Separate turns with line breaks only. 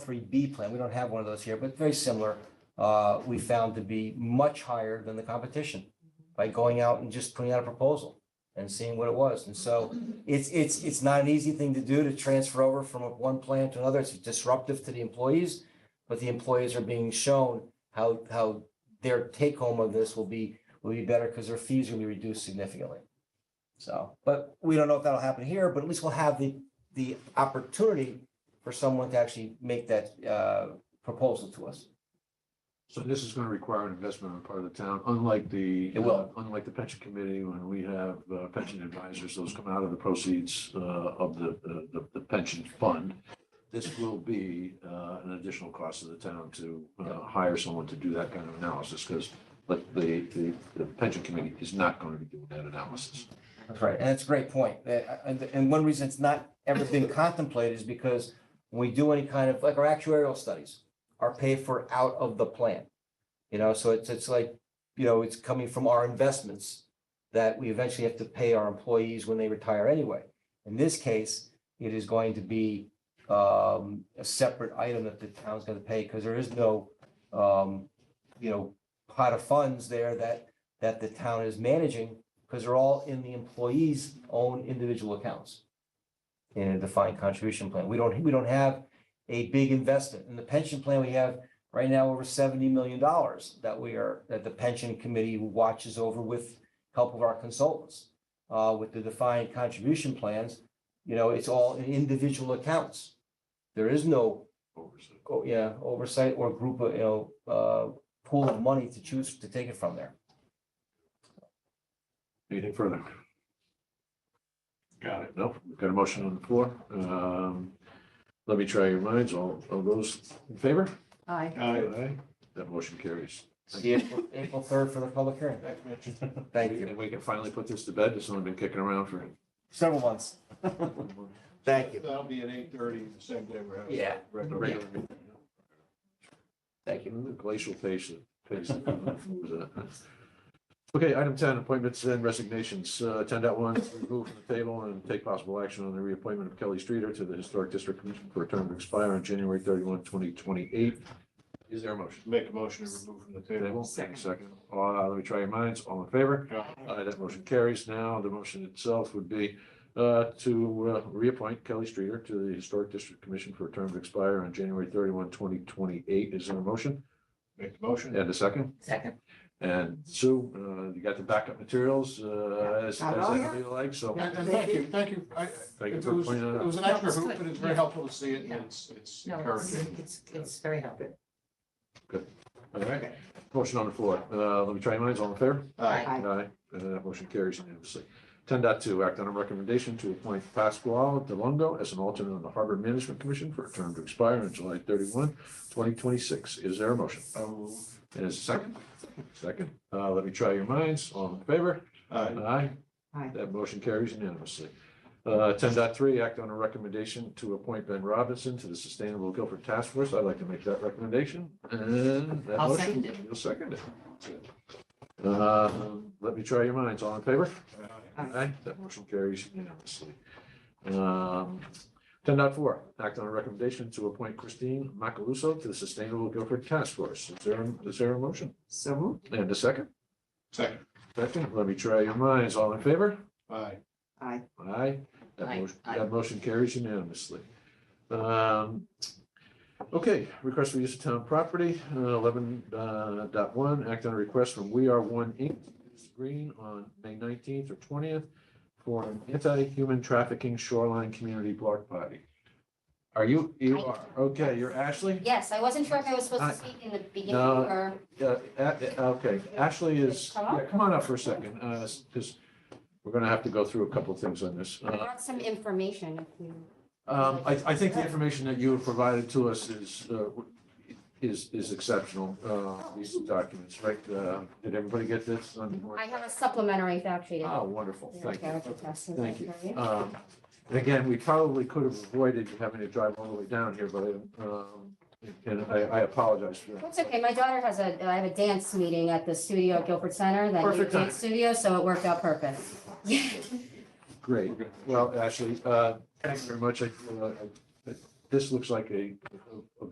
free B plan, we don't have one of those here, but very similar, uh, we found to be much higher than the competition by going out and just putting out a proposal and seeing what it was. And so it's, it's, it's not an easy thing to do to transfer over from one plan to another. It's disruptive to the employees. But the employees are being shown how, how their take home of this will be, will be better because their fees will be reduced significantly. So, but we don't know if that'll happen here, but at least we'll have the, the opportunity for someone to actually make that, uh, proposal to us.
So this is going to require an investment on the part of the town, unlike the.
It will.
uh, Unlike the pension committee, when we have uh, pension advisors, those come out of the proceeds uh, of the, the- the, the pension fund. This will be uh, an additional cost to the town to uh, hire someone to do that kind of analysis, because but the, the, the pension committee is not going to be doing that analysis.
That's right, and that's a great point. That- And, and one reason it's not ever been contemplated is because when we do any kind of, like our actuarial studies are paid for out of the plan. You know, so it's, it's like, you know, it's coming from our investments that we eventually have to pay our employees when they retire anyway. In this case, it is going to be um, a separate item that the town's gonna pay because there is no, um, you know, pot of funds there that, that the town is managing because they're all in the employee's own individual accounts in a defined contribution plan. We don't, we don't have a big investment. In the pension plan, we have right now over seventy million dollars that we are, that the pension committee watches over with help of our consultants. Uh, with the defined contribution plans, you know, it's all in individual accounts. There is no, oh, yeah, oversight or group of, you know, uh, pool of money to choose to take it from there.
Anything further? Got it. No, we've got a motion on the floor. Um, Let me try your minds. All, all those in favor?
Aye.
Aye. That motion carries.
See April, April third for the public hearing. Thank you.
And we can finally put this to bed. This one's been kicking around for.
Several months. Thank you.
That'll be at eight thirty, the same day we're having.
Yeah.
the regular meeting.
Thank you.
The Glacial patient. patient. Okay, item ten, appointments and resignations. Uh, ten dot one, remove from the table and take possible action on the reappointment of Kelly Streeter to the Historic District Commission for a term to expire on January thirty-one, twenty twenty-eight. Is there a motion?
Make a motion to remove from the
Table,
table.
Second. second. Uh, let me try your minds. All in favor?
Aye.
Aye, that motion carries. Now, the motion itself would be uh, to uh, reappoint Kelly Streeter to the Historic District Commission for a term to expire on January 31, 2028. Is there a motion?
Make the motion.
And a second?
Second.
And Sue, uh, you got the backup materials, uh, as, as
Not all
anybody likes, so.
And and thank you, thank you. I-
Thank you
It
for
was,
pointing that out.
it was an
No,
extra
it's
hoop,
good.
but it's very
Yeah.
helpful to see it and
Yeah.
it's, it's
No, it's,
encouraging.
it's, it's very helpful.
All right, motion on the floor. Uh, let me try your minds. All in favor?
Aye.
Aye.
Aye, Uh, that motion carries unanimously. Ten dot two, act on a recommendation to appoint Pasquale DeLongo as an alternate on the Harbor Management Commission for a term to expire on July 31, 2026. Is there a motion?
So moved.
And is there a second? Second. Uh, let me try your minds. All in favor?
Aye.
Aye.
Aye.
That motion carries unanimously. Uh, ten dot three, act on a recommendation to appoint Ben Robinson to the Sustainable Guilford Task Force. I'd like to make that recommendation and that
I'll
motion.
second it.
You'll second it. Uh, let me try your minds. All in favor?
Aye.
Aye, that motion carries unanimously. Um, ten dot four, act on a recommendation to appoint Christine Macaluso to the Sustainable Guilford Task Force. Is there, is there a motion?
So moved.
And a second?
Second.
Second, let me try your minds. All in favor?
Aye.
Aye.
Aye. That
Aye,
motion,
aye.
that motion carries unanimously. Um, okay, request for use of town property, uh, eleven, uh, dot one, act on a request from We Are One Inc. to use Green on May nineteenth or twentieth for an anti-human trafficking shoreline community block party. Are you, you are, okay, you're Ashley?
Yes, I wasn't sure if I was supposed
Hi.
to speak in the beginning
Uh, No.
or,
Yeah, a- a- uh, okay, Ashley is,
Come up?
yeah, come on up for a second, uh, because we're gonna have to go through a couple things on this.
I
Uh,
brought some information if you.
Um, I, I think the information that you have provided to us is, uh, is, is exceptional, uh, these documents, right? Uh, Did everybody get this?
I have a supplementary fact sheet.
Oh, wonderful, thank you. Thank
Thank
you. Um, and again, we probably could have avoided having to drive all the way down here, but, um, and I, I apologize for that.
That's okay. My daughter has a, I have a dance meeting at the studio at Guilford Center, that new
Perfect time.
dance studio, so it worked out perfect.
Great, well, Ashley, uh, thanks very much. I, uh, I- This looks like a, a- a